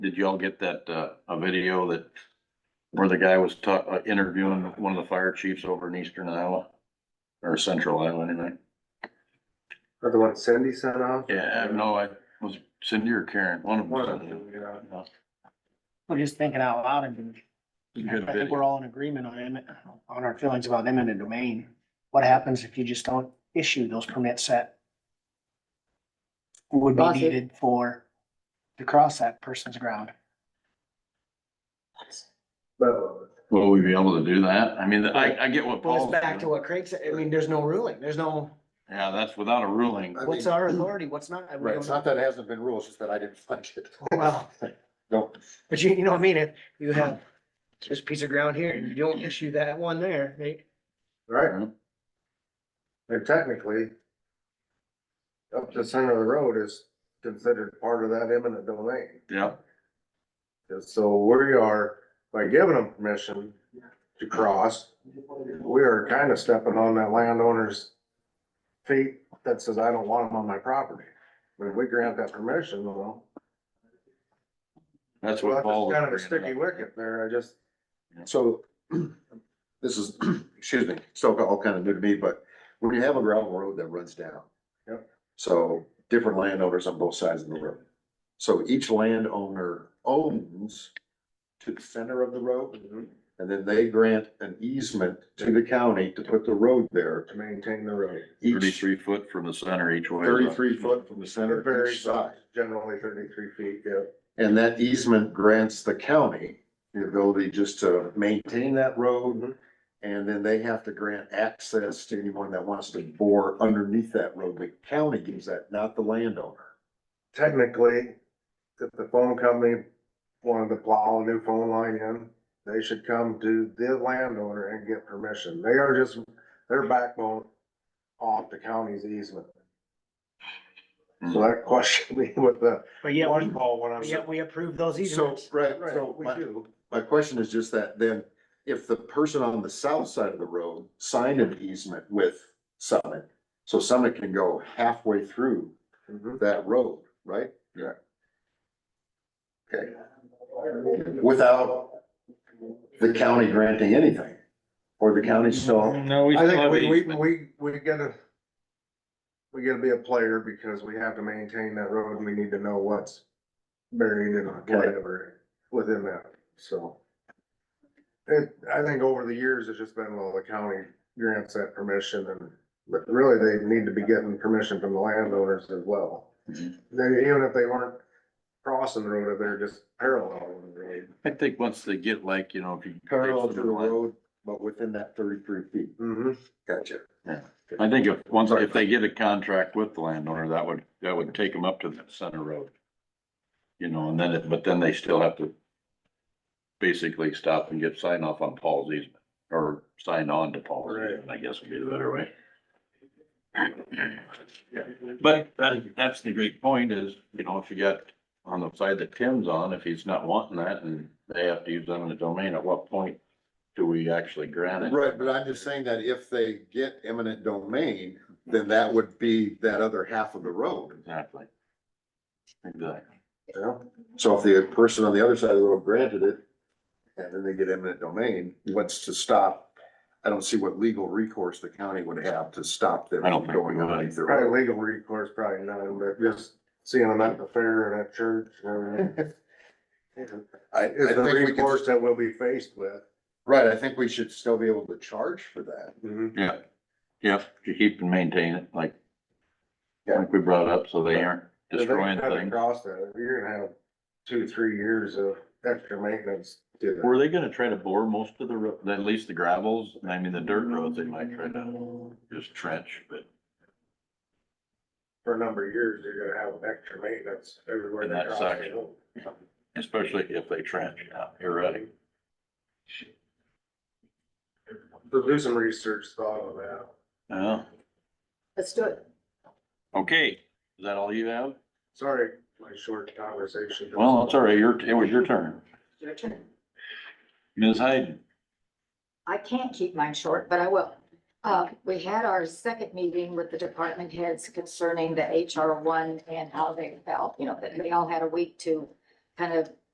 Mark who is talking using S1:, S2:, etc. S1: did y'all get that, uh, a video that where the guy was ta- uh, interviewing one of the fire chiefs over in eastern Iowa? Or central Iowa anyway?
S2: Or the one Cindy sent out?
S1: Yeah, no, I was Cindy or Karen, one of
S2: One of
S1: them.
S2: them, yeah.
S3: We're just thinking out loud and
S1: Good
S3: I think
S1: video.
S3: we're all in agreement on, em- on our feelings about eminent domain. What happens if you just don't issue those permits that would be
S4: Cross it.
S3: needed for, to cross that person's ground?
S2: But
S1: Will we be able to do that? I mean, I, I get what
S4: Well,
S1: Paul's.
S4: it's back to
S1: doing.
S4: what Craig said, I mean, there's no ruling, there's no,
S1: Yeah, that's without a ruling.
S2: I
S4: what's
S2: mean- mm.
S4: our authority, what's not. we
S2: Right,
S4: don't
S2: it's not that it hasn't been rules, it's that I didn't find it.
S4: know. Well,
S2: No,
S4: but you, you know what I mean, if you have this piece of ground here and you don't issue that one there, right?
S2: right, and technically, up to the center of the road is considered part of that eminent domain.
S1: Yeah,
S2: And so we are, by giving them permission to cross, we are kind of stepping on that landowner's feet that says, I don't want them on my property. When we grant that permission, well,
S1: that's what Paul.
S2: that's
S1: was
S2: kind of a sticky
S1: bringing up.
S2: wicket there, I just.
S5: So this is, excuse me, still all kind of new to me, but when you have a gravel road that runs down.
S2: Yep.
S5: So different landowners on both sides of the road. So each landowner owns to the center of the road and then they grant an easement to the county to put the road there.
S2: To maintain the road.
S5: Each
S1: Thirty-three foot from the center each way.
S5: thirty-three foot from the center of
S2: Very
S5: each side.
S2: generally thirty-three feet, yeah.
S5: And that easement grants the county the ability just to maintain that
S2: Mm-hmm.
S5: road. And then they have to grant access to anyone that wants to bore underneath that road. The county gives that, not the landowner.
S2: Technically, if the phone company wanted to plow a new phone line in, they should come to the landowner and get permission. They are just, their backbone off the county's easement.
S5: Hmm.
S2: So that question me with the
S4: But yet,
S2: one
S4: we-
S2: call when I'm.
S4: but yet we approve those
S5: So,
S4: easements.
S5: right,
S2: Right,
S5: so
S2: we
S5: my,
S2: do.
S5: my question is just that then, if the person on the south side of the road signed an easement with Summit, so Summit can go halfway through
S2: Mhm.
S5: that road, right?
S2: Yeah.
S5: Okay. Without the county granting anything, or the
S2: Mm-hmm.
S5: county still,
S1: No, we
S2: I think we, we, we, we gotta, we gotta be a player because we have to maintain that road and we need to know what's buried and whatever within that, so. It, I think over the years, it's just been, well, the county grants that permission and, but really they need to be getting permission from the landowners as well. They,
S1: Mhm.
S5: Mm-hmm.
S2: even if they weren't crossing the road, if they're just parallel with the road.
S1: I think once they get like, you know, if you.
S5: parallel to the road, but within that thirty-three feet.
S2: Mm-hmm.
S5: Gotcha.
S1: I think if, once, if they get a contract with the landowner, that would, that would take them up to the center road. You know, and then, it but then they still have to basically stop and get sign off on Paul's easement, or sign on to Paul's
S2: Right.
S1: easement, I guess would be the better way. But that, that's the great point is, you know, if you got on the side that Tim's on, if he's not wanting that and they have to use them in the domain, at what point do we actually grant it?
S5: Right, but I'm just saying that if they get eminent domain, then that would be that other half of the road.
S1: Exactly. Exactly.
S2: Yeah.
S5: So if the person on the other side of the road granted it, and then they get eminent domain, what's to stop? I don't see what legal recourse the county would have to stop them
S1: I don't
S5: from
S1: think we
S5: going
S1: would.
S5: underneath the road.
S2: Probably legal recourse, probably none, but just seeing them at the fair and at church and everything.
S5: I, I
S2: Is the
S5: think we
S2: recourse
S5: could,
S2: that we'll be faced with.
S5: right, I think we should still be able to charge for that.
S1: Yeah, yeah, to keep and maintain it, like,
S5: Yeah.
S1: like we brought up, so they aren't
S2: If they
S1: destroying
S2: cut
S1: things.
S2: Across that, you're gonna have two, three years of extra maintenance. to that.
S1: Were they gonna try to bore most of the, ro- at least the gravels, I mean, the dirt roads, they might try to just trench, but
S2: For a number of years, you're gonna have extra maintenance everywhere.
S1: In
S2: they
S1: that
S2: cross
S1: section.
S2: the road.
S1: especially if they trench, yeah, you're right.
S2: So do some research thought on that.
S1: Yeah,
S4: Let's do it.
S1: okay, is that all you have?
S2: Sorry, my short conversation.
S1: Well, it's all right, your, it was your turn.
S6: Your turn.
S1: Ms. Hayden,
S6: I can't keep mine short, but I will. Uh, we had our second meeting with the department heads concerning the HR one and how they felt, you know, that they all had a week to kind of